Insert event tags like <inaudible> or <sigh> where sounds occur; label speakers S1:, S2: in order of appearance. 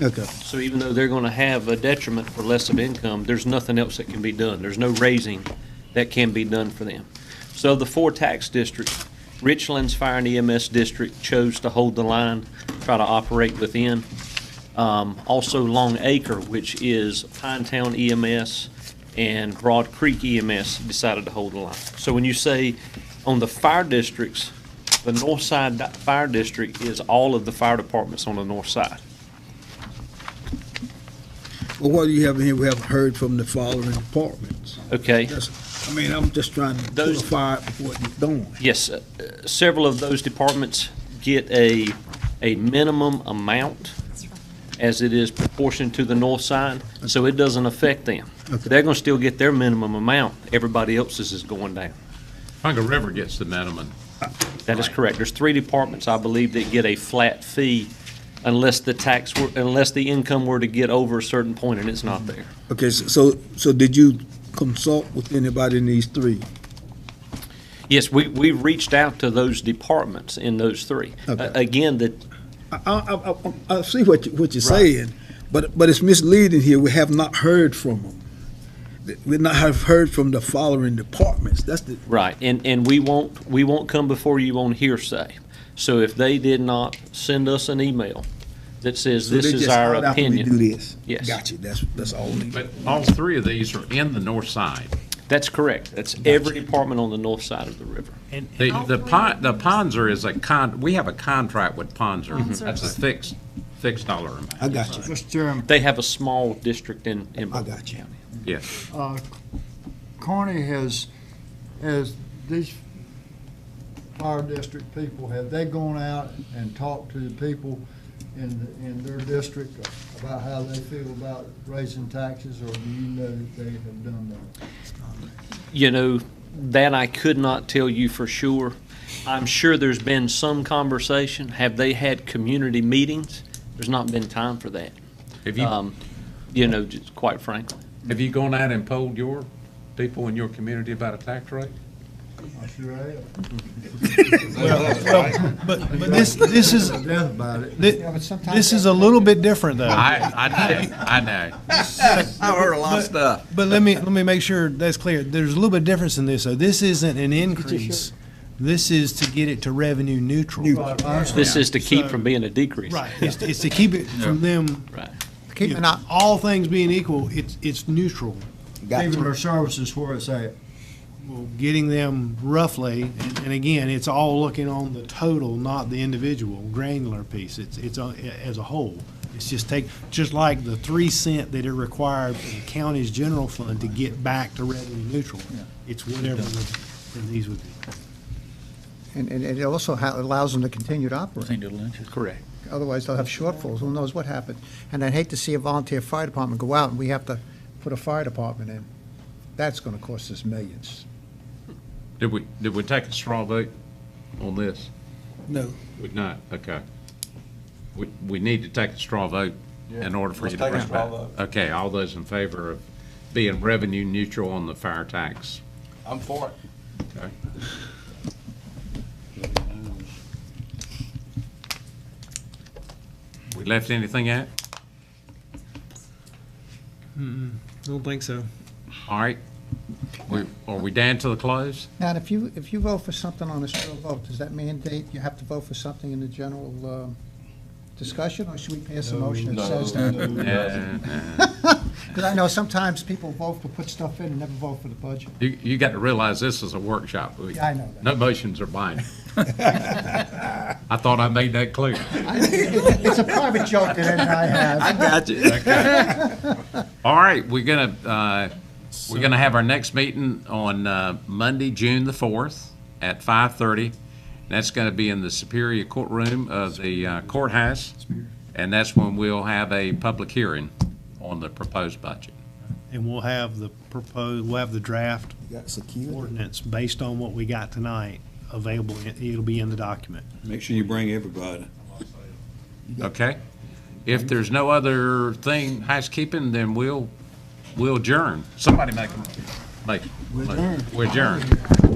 S1: Okay.
S2: So even though they're going to have a detriment for less of income, there's nothing else that can be done. There's no raising that can be done for them. So the four tax districts, Richlands Fire and EMS District chose to hold the line, try to operate within. Um, Also Long Acre, which is Pine Town EMS and Broad Creek EMS decided to hold the line. So when you say on the fire districts, the north side di- fire district is all of the fire departments on the north side.
S1: Well, what do you have in here? We haven't heard from the following departments.
S2: Okay?
S1: That's- I mean, I'm just trying to
S2: Those-
S1: clarify what you're doing.
S2: Yes, uh, uh, several of those departments get a, a minimum amount as it is proportioned to the north side, so it doesn't affect them.
S1: Okay.
S2: They're gonna still get their minimum amount, everybody else's is going down.
S3: Congo River gets the minimum.
S2: That is correct. There's three departments, I believe, that get a flat fee unless the tax, were unless the income were to get over a certain point and it's not
S1: Mm-hmm.
S2: there.
S1: Okay, s- so, so did you consult with anybody in these three?
S2: Yes, we, we reached out to those departments in those three. A-
S1: Okay.
S2: Again, the,
S1: I, I, I, I see what you, what you're
S2: Right.
S1: saying, but, but it's misleading here. We have not heard from them. Th- We not have heard from the following departments. That's the,
S2: Right, and, and we won't, we won't come before you on hearsay. So if they did not send us an email that says
S1: so
S2: this
S1: they
S2: is
S1: just
S2: our
S1: hired after we do
S2: opinion.
S1: this.
S2: Yes.
S1: Got you. That's, that's all. we-
S3: But all three of these are in the north side.
S2: That's correct. That's every department on the north side of the river.
S3: The, the pon, the Ponzer is a con, we have a contract with Ponzer. That's a fixed, fixed dollar amount.
S1: I got you.
S4: Mr. Chairman,
S2: They have a small district in, in
S1: I
S2: Bourbon
S1: got you.
S2: County.
S3: Yes.
S4: uh, Carney has, has these fire district people, have they gone out and talked to the people in, in their district about how they feel about raising taxes, or do you know that they have done that?
S2: You know, that I could not tell you for sure. I'm sure there's been some conversation. Have they had community meetings? There's not been time for that.
S3: Have you,
S2: Um, you know, just quite frankly.
S3: have you gone out and polled your people in your community about a tax rate?
S4: I sure have.
S5: But, but this, this is,
S4: I'm deaf about it.
S5: thi- this is a little bit different though.
S3: I, I know, I know.
S6: I've heard a lot of stuff.
S5: But let me, let me make sure that's clear. There's a little bit of difference in this. So this isn't an increase. This is to get it to revenue neutral.
S4: Right, I understand.
S2: This is to keep from being a decrease.
S5: Right. It's, it's to keep it from them,
S2: Right.
S5: you know, all things being equal, it's, it's neutral.
S4: Even their services where it's at.
S5: Well, Getting them roughly, and, and again, it's all looking on the total, not the individual granular piece. It's, it's a- as a whole. It's just take, just like the three cent that it required for the county's general fund to get back to revenue neutral. It's whatever the- these would be.
S7: And, and it also ha- allows them to continue to operate.
S2: Correct.
S7: Otherwise, they'll have shortfalls. Who knows what happened? And I'd hate to see a volunteer fire department go out and we have to put a fire department in. That's gonna cost us millions.
S3: Did we, did we take a straw vote on this?
S1: No.
S3: We did not, okay. We, we need to take a straw vote in order for you to bring it back. Okay, all those in favor of being revenue neutral on the fire tax?
S6: I'm for it.
S3: Okay. We left anything out?
S5: Don't think so.
S3: All right. We- Are we down to the close?
S7: Now, if you, if you vote for something on a straw vote, does that mandate you have to vote for something in the general, um, discussion? Or should we pass a motion that
S5: <laughs>
S7: says that?
S3: Uh,
S7: Because I know sometimes people vote to put stuff in and never vote for the budget.
S3: You, you got to realize this is a workshop. We-
S7: Yeah, I know that.
S3: No motions are
S7: <laughs>
S3: binding. I thought I made that clear.
S7: I- it- It's a private joke that Ed and I have.
S6: I got you.
S3: All right, we're gonna, uh, we're gonna have our next meeting on, uh, Monday, June the fourth at five thirty. That's gonna be in the Superior Courtroom of the uh, courthouse. And that's when we'll have a public hearing on the proposed budget.
S5: And we'll have the proposed, we'll have the draft ordinance based on what we got tonight available. It- It'll be in the document.
S8: Make sure you bring everybody.
S3: Okay? If there's no other thing housekeeping, then we'll, we'll adjourn. Somebody make a, make, we're adjourned.